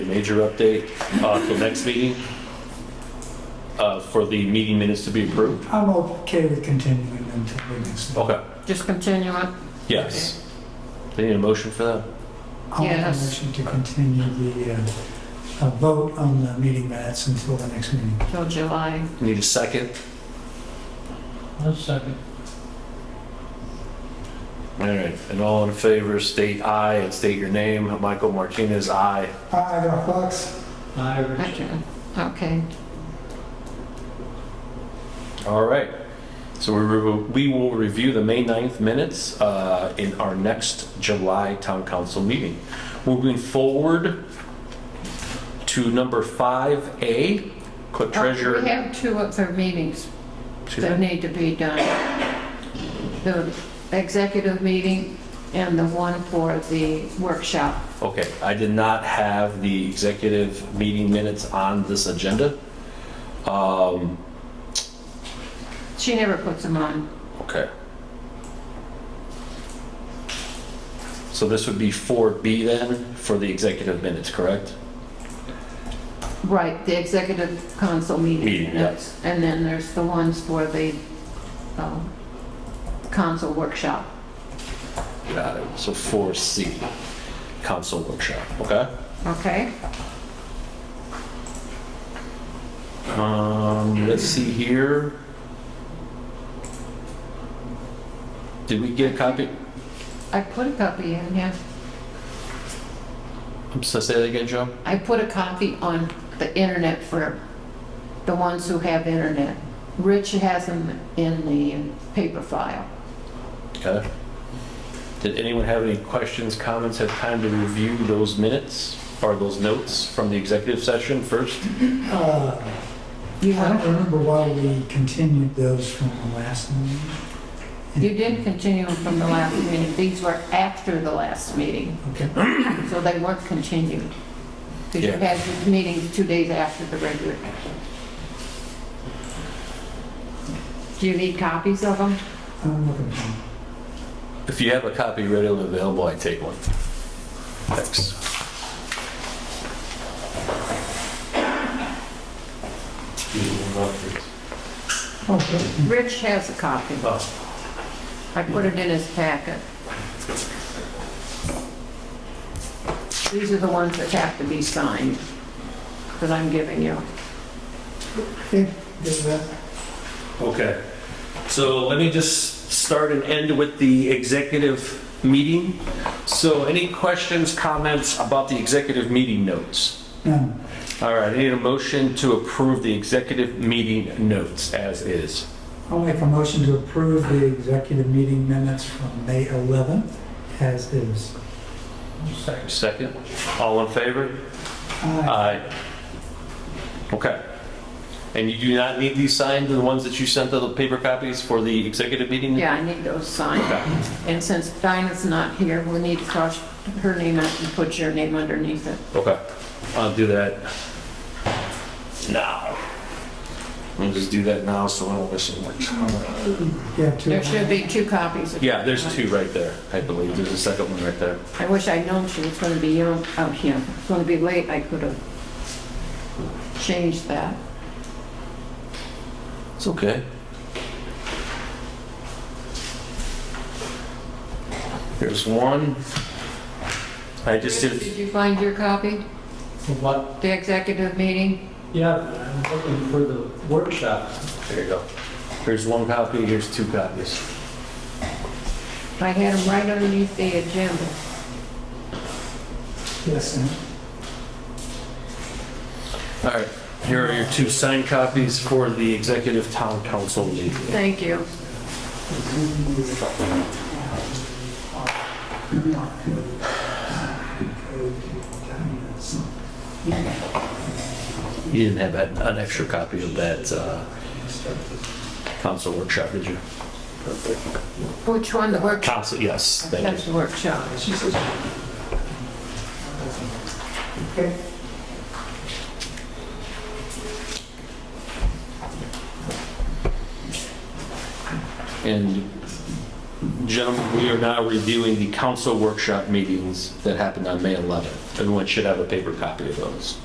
Major update uh, till next meeting uh, for the meeting minutes to be approved? I'm okay with continuing until we next. Okay, Just continue it. yes. They need a motion for that? I'll make a Yes. motion to continue the uh, uh, vote on the meeting minutes until the next meeting. till July. Need a second? I'll second. All right, and all in favor, state aye and state your name. Michael Martinez, aye. Aye, Ralph Fox. Aye, Okay, All right. So we re- we will review the May 9th minutes uh, in our next July Town Council meeting. Moving forward to number 5A, Clerk Oh, We Treasurer. have two other meetings Excuse me? that need to be done. The executive meeting and the one for the workshop. Okay, I did not have the executive meeting minutes on this agenda. Um, She never puts them on. Okay. So this would be 4B then, for the executive minutes, correct? Right, the executive council meeting. Meeting, yes. And then there's the ones for the um, council workshop. Got it. So 4C, council workshop, okay? Okay? Um, let's see here. Did we get a copy? I put a copy in, yeah. I'm sorry, say that again, Joe? I put a copy on the internet for the ones who have internet. Rich has them in the paper file. Okay. Did anyone have any questions, comments, have time to review those minutes or those notes from the executive session first? Uh, I You don't want, remember why we continued those from the last meeting. you did continue them from the last meeting. These were after the last meeting, Okay, so they weren't continued. Because you Yeah. had the meeting two days after the regular. Do you need copies of them? I'm looking for them. If you have a copy readily available, I take one. Thanks. Oh, Rich has a copy. Oh, I put it in his packet. These are the ones that have to be signed, that I'm giving you. okay, there's that. Okay. So let me just start and end with the executive meeting. So any questions, comments about the executive meeting notes? No, All right, I need a motion to approve the executive meeting notes as is. I'll make a motion to approve the executive meeting minutes from May 11th as is. Second, all in favor? Uh, Aye. Aye. Okay. And you do not need these signed, the ones that you sent the paper copies for the executive meeting? Yeah, I need those signed. Okay. And since Dinah's not here, we'll need to cross her name out and put your name underneath it. Okay, I'll do that now. I'll just do that now so I don't miss it. You have two. There should be two copies. of- Yeah, there's two right there, I believe. There's a second one right there. I wish I'd known she was going to be young out here. It's going to be late, I could have changed that. It's okay. Here's one. I just did, Did you find your copy, For What, the executive meeting? yeah, I'm looking for the workshop. there you go. Here's one copy, here's two copies. I had them right underneath the agenda. Yes, and All right, here are your two signed copies for the executive town council meeting. Thank you. You didn't have an- an extra copy of that uh, council workshop, did you? Which one, the workshop? Council, yes, thank That's you. the workshop. Okay. And Gentlemen, we are now reviewing the council workshop meetings that happened on May 11th. Everyone should have a paper copy of those.